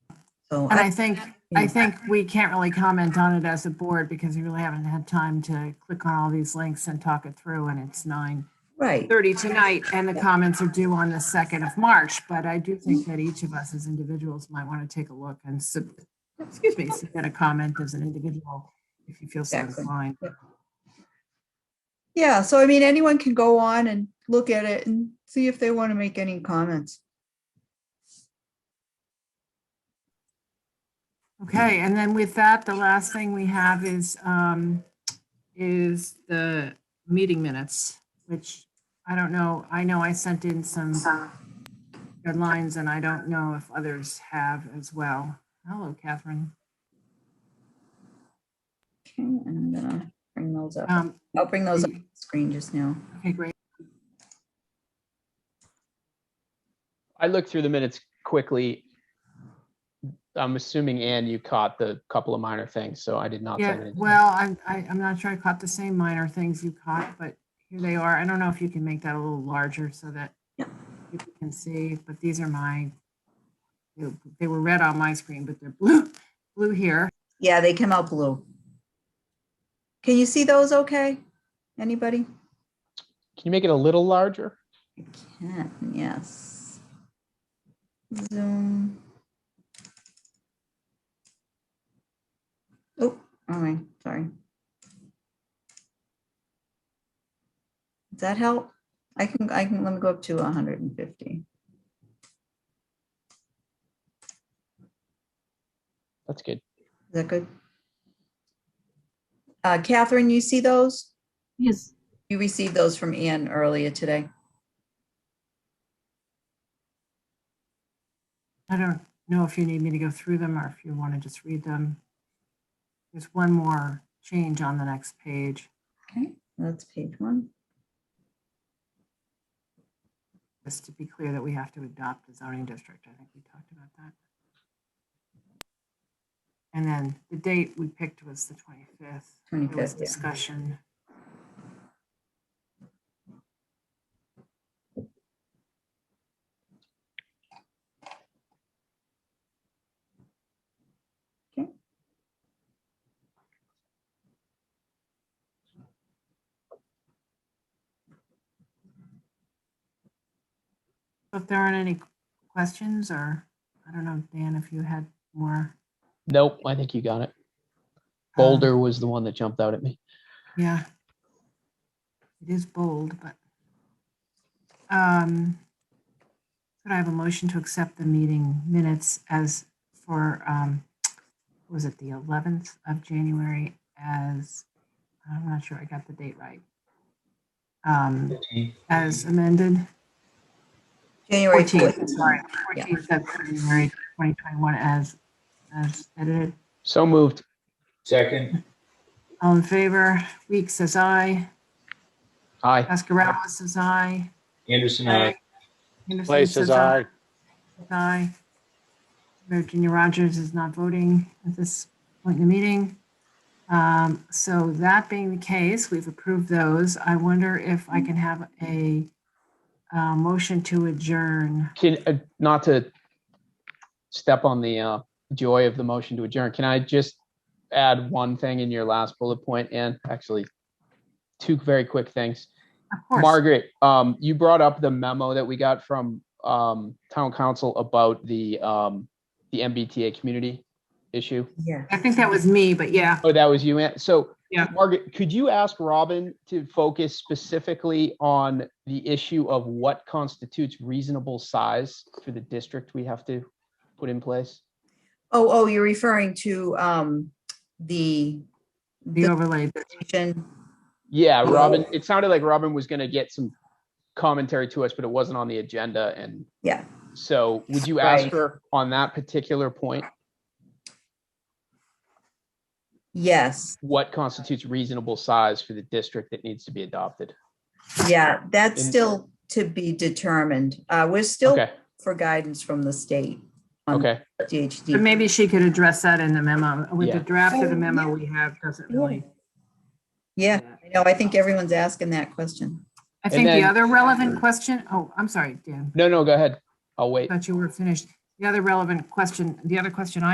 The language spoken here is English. So And I- I think, I think we can't really comment on it as a board because we really haven't had time to click on all these links and talk it through and it's nine right, thirty tonight and the comments are due on the second of March. But I do think that each of us as individuals might want to take a look and sub, excuse me, submit a comment as an individual if you feel so Exactly. inclined. Yeah, so I mean, anyone can go on and look at it and see if they want to make any comments. Okay, and then with that, the last thing we have is, um, is the meeting minutes, which I don't know, I know I sent in some deadlines and I don't know if others have as well. Hello, Catherine. Okay, and I'm gonna bring those up. Um, I'll bring those up on the screen just now. okay, great. I looked through the minutes quickly. I'm assuming, Ann, you caught the couple of minor things, so I did not. send Yeah, anything. well, I'm, I, I'm not sure I caught the same minor things you caught, but here they are. I don't know if you can make that a little larger so that Yep. people can see, but these are my, they- they were red on my screen, but they're blue, blue here. Yeah, they came out blue. Can you see those okay? Anybody? Can you make it a little larger? I can, yes. Zoom. Oh, all right, sorry. Does that help? I can, I can, let me go up to hundred and fifty. That's good. Is that good? Uh, Catherine, you see those? Yes, You received those from Ann earlier today. I don't know if you need me to go through them or if you want to just read them. There's one more change on the next page. Okay, that's page one. Just to be clear that we have to adopt a zoning district. I think we talked about that. And then the date we picked was the 25th. There was 25th, yeah. discussion. If there aren't any questions or, I don't know, Dan, if you had more. Nope, I think you Um, got it. Boulder was the one that jumped out at me. Yeah. It is bold, but. um Could I have a motion to accept the meeting minutes as for, um was it the 11th of January as, I'm not sure I got the date right. Um As amended, January 14th, 14th. sorry, 14th of January 2021 as, as edited. So moved. Second, All in favor, Weeks says aye, Uh, Aye. Pascarella says aye. Anderson, Uh, I. Anderson Place says is aye. I. Aye. Virginia Rogers is not voting at this point in the meeting. Um, So that being the case, we've approved those. I wonder if I can have a uh, motion to adjourn. Can, uh, not to step on the uh, joy of the motion to adjourn, can I just add one thing in your last bullet point, Ann? Actually, two very quick things. Of course, Margaret, um, you brought up the memo that we got from, um, town council about the, um, the MBTA community issue. Yeah. I think that was me, but yeah. Oh, that was you, Ann. So. Yeah. Margaret, could you ask Robin to focus specifically on the issue of what constitutes reasonable size for the district we have to put in place? Oh, oh, you're referring to um the The overlay. petition. Yeah, Robin, it sounded like Robin was gonna get some commentary to us, but it wasn't on the agenda and. Yeah. So would you ask Right. her on that particular point? Yes, what constitutes reasonable size for the district that needs to be adopted. yeah, that's In- still to be determined. Uh, we're still Okay, for guidance from the state on okay, DHD. But maybe she could address that in the memo. With the Yeah. draft of the memo we have, doesn't really. Yeah, I know. I think everyone's asking that question. I think the then- other relevant question, oh, I'm sorry, Dan, no, no, go ahead, I'll wait. thought you were finished. The other relevant question, the other question I.